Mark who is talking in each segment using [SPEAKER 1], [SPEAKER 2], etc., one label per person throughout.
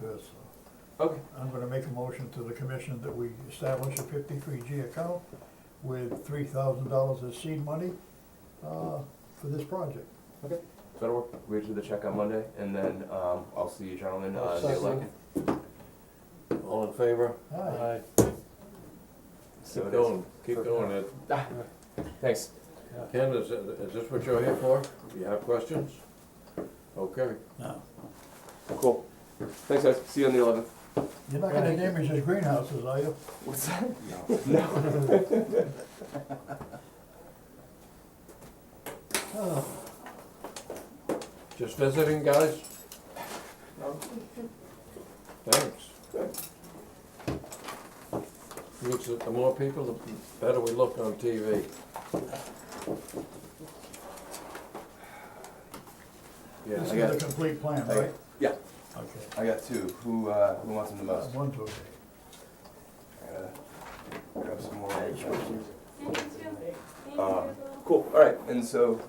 [SPEAKER 1] first.
[SPEAKER 2] Okay,
[SPEAKER 1] I'm gonna make a motion to the commission that we establish a fifty-three G account with three thousand dollars as seed money, uh, for this project.
[SPEAKER 2] so that'll work. We do the check on Monday, and then um, I'll see you gentlemen uh, the
[SPEAKER 3] Second.
[SPEAKER 2] eleventh.
[SPEAKER 3] All in favor?
[SPEAKER 1] Aye.
[SPEAKER 2] So
[SPEAKER 3] Keep
[SPEAKER 2] it is.
[SPEAKER 3] going, keep going. It-
[SPEAKER 2] Ah, Thanks.
[SPEAKER 3] Ken,
[SPEAKER 2] uh,
[SPEAKER 3] is, is this what you're here for? You have questions? Okay.
[SPEAKER 1] No.
[SPEAKER 2] Cool. Thanks, guys. See you on the eleventh.
[SPEAKER 1] You're not gonna damage his greenhouses, are you?
[SPEAKER 2] What's that?
[SPEAKER 1] Oh,
[SPEAKER 3] Just visiting, guys? Thanks. Looks at the more people, the better we look on TV.
[SPEAKER 2] Yeah,
[SPEAKER 1] This
[SPEAKER 2] I got,
[SPEAKER 1] is the complete plan,
[SPEAKER 2] I-
[SPEAKER 1] right?
[SPEAKER 2] yeah.
[SPEAKER 1] Okay.
[SPEAKER 2] I got two. Who uh, who wants them the most?
[SPEAKER 1] One, two,
[SPEAKER 2] I gotta grab some more.
[SPEAKER 4] Thank you. Thank you. Uh,
[SPEAKER 2] Um, Cool, all right, and so,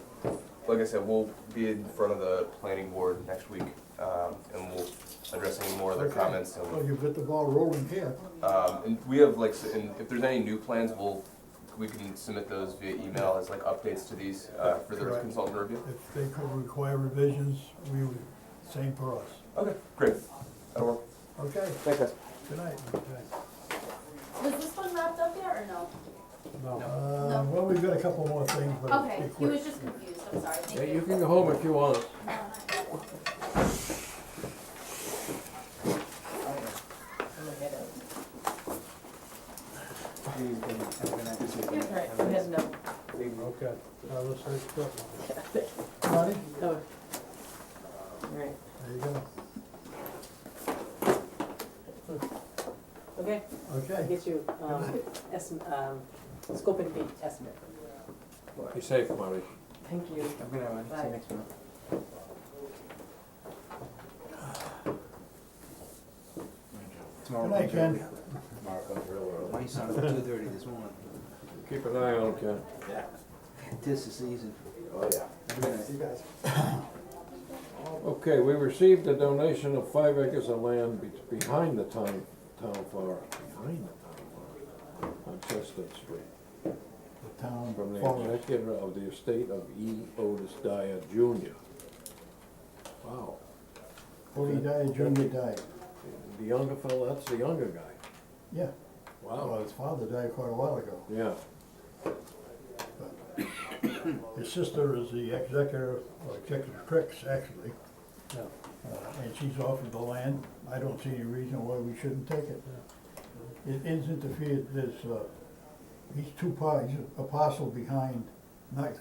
[SPEAKER 2] like I said, we'll be in front of the planning board next week, um, and we'll address any more of their
[SPEAKER 1] Okay.
[SPEAKER 2] comments,
[SPEAKER 1] well,
[SPEAKER 2] and,
[SPEAKER 1] you've got the ball rolling here.
[SPEAKER 2] um, and we have like, s- and if there's any new plans, we'll, we can submit those via email as like updates to these, uh, for the
[SPEAKER 1] Correct.
[SPEAKER 2] consultant review.
[SPEAKER 1] If they could require revisions, we would, same for us.
[SPEAKER 2] Okay, great, that'll work,
[SPEAKER 1] Okay,
[SPEAKER 2] thanks guys.
[SPEAKER 1] good night.
[SPEAKER 4] Was this one wrapped up yet or no?
[SPEAKER 1] Uh, well, we've got a couple more things, but it'll
[SPEAKER 4] Okay,
[SPEAKER 1] be
[SPEAKER 4] he
[SPEAKER 1] quick.
[SPEAKER 4] was just confused, I'm sorry,
[SPEAKER 3] Yeah,
[SPEAKER 4] thank
[SPEAKER 3] you
[SPEAKER 4] you.
[SPEAKER 3] can go home if you want.
[SPEAKER 5] Right, we have no,
[SPEAKER 1] Okay, uh, let's take that one. Money,
[SPEAKER 5] no. Right,
[SPEAKER 1] there you go.
[SPEAKER 5] okay, I'll
[SPEAKER 1] Okay,
[SPEAKER 5] get you, um, estimate, um, scope and date estimate.
[SPEAKER 3] Be safe, Marty.
[SPEAKER 5] Thank you.
[SPEAKER 6] I'm gonna uh, see
[SPEAKER 5] Bye.
[SPEAKER 6] you next month. Tomorrow.
[SPEAKER 1] good night, Ken.
[SPEAKER 6] My son at two thirty this morning.
[SPEAKER 3] Keep an eye on Ken.
[SPEAKER 6] This is season.
[SPEAKER 3] Oh, yeah.
[SPEAKER 6] I'm gonna-
[SPEAKER 3] Okay, we received a donation of five acres of land be- behind the town, town farm, behind the town farm, on Chestnut Street,
[SPEAKER 1] The town
[SPEAKER 3] from the
[SPEAKER 1] forward.
[SPEAKER 3] executor of the estate of E. Otis Dyer Jr. Wow,
[SPEAKER 1] Forty died, Junior died.
[SPEAKER 3] the younger fellow, that's the younger guy.
[SPEAKER 1] Yeah, well,
[SPEAKER 3] Wow,
[SPEAKER 1] his father died quite a while ago.
[SPEAKER 3] yeah,
[SPEAKER 1] His sister is the executor, or executor Cricks, actually.
[SPEAKER 3] Yeah.
[SPEAKER 1] Uh, And she's offered the land. I don't see any reason why we shouldn't take it. It is interfered, there's, uh, he's two pies, a parcel behind, not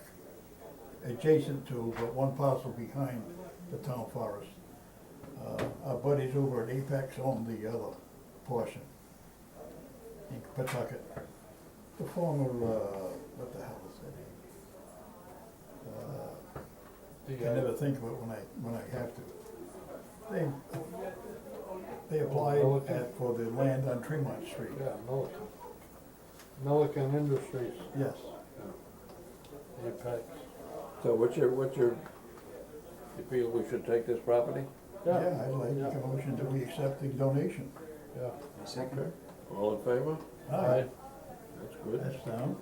[SPEAKER 1] adjacent to, but one parcel behind the town forest. Uh, Our buddies over at Apex own the other portion in Pawtucket. The former, uh, what the hell is that name? Uh, I never think of it when I, when I have to. They, they applied at- for the land on Tremont Street,
[SPEAKER 7] Yeah, Milliken. Milliken Industries,
[SPEAKER 1] yes.
[SPEAKER 7] Apex.
[SPEAKER 3] so what's your, what's your, you feel we should take this property?
[SPEAKER 1] Yeah, I'd like to make a motion that we accept the donation.
[SPEAKER 7] Yeah.
[SPEAKER 6] My second.
[SPEAKER 3] All in favor?
[SPEAKER 1] Aye,
[SPEAKER 3] That's good.
[SPEAKER 1] that's down.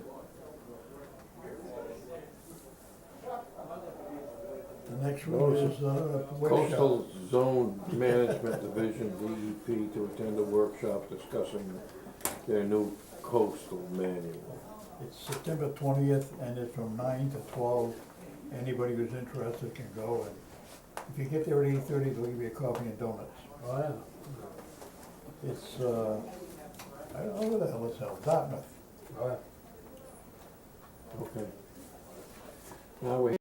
[SPEAKER 1] The next one is, uh, West Shore.
[SPEAKER 3] Coastal Zone Management Division, DEP, to attend a workshop discussing their new coastal manual.
[SPEAKER 1] It's September twentieth, and it's from nine to twelve. Anybody who's interested can go, and if you get there at eight-thirty, they'll give you a coffee and donuts.
[SPEAKER 7] Oh, yeah.
[SPEAKER 1] It's, uh, I don't know where the hell it's held, Dartmouth.
[SPEAKER 7] Oh, yeah.
[SPEAKER 3] Okay. Now we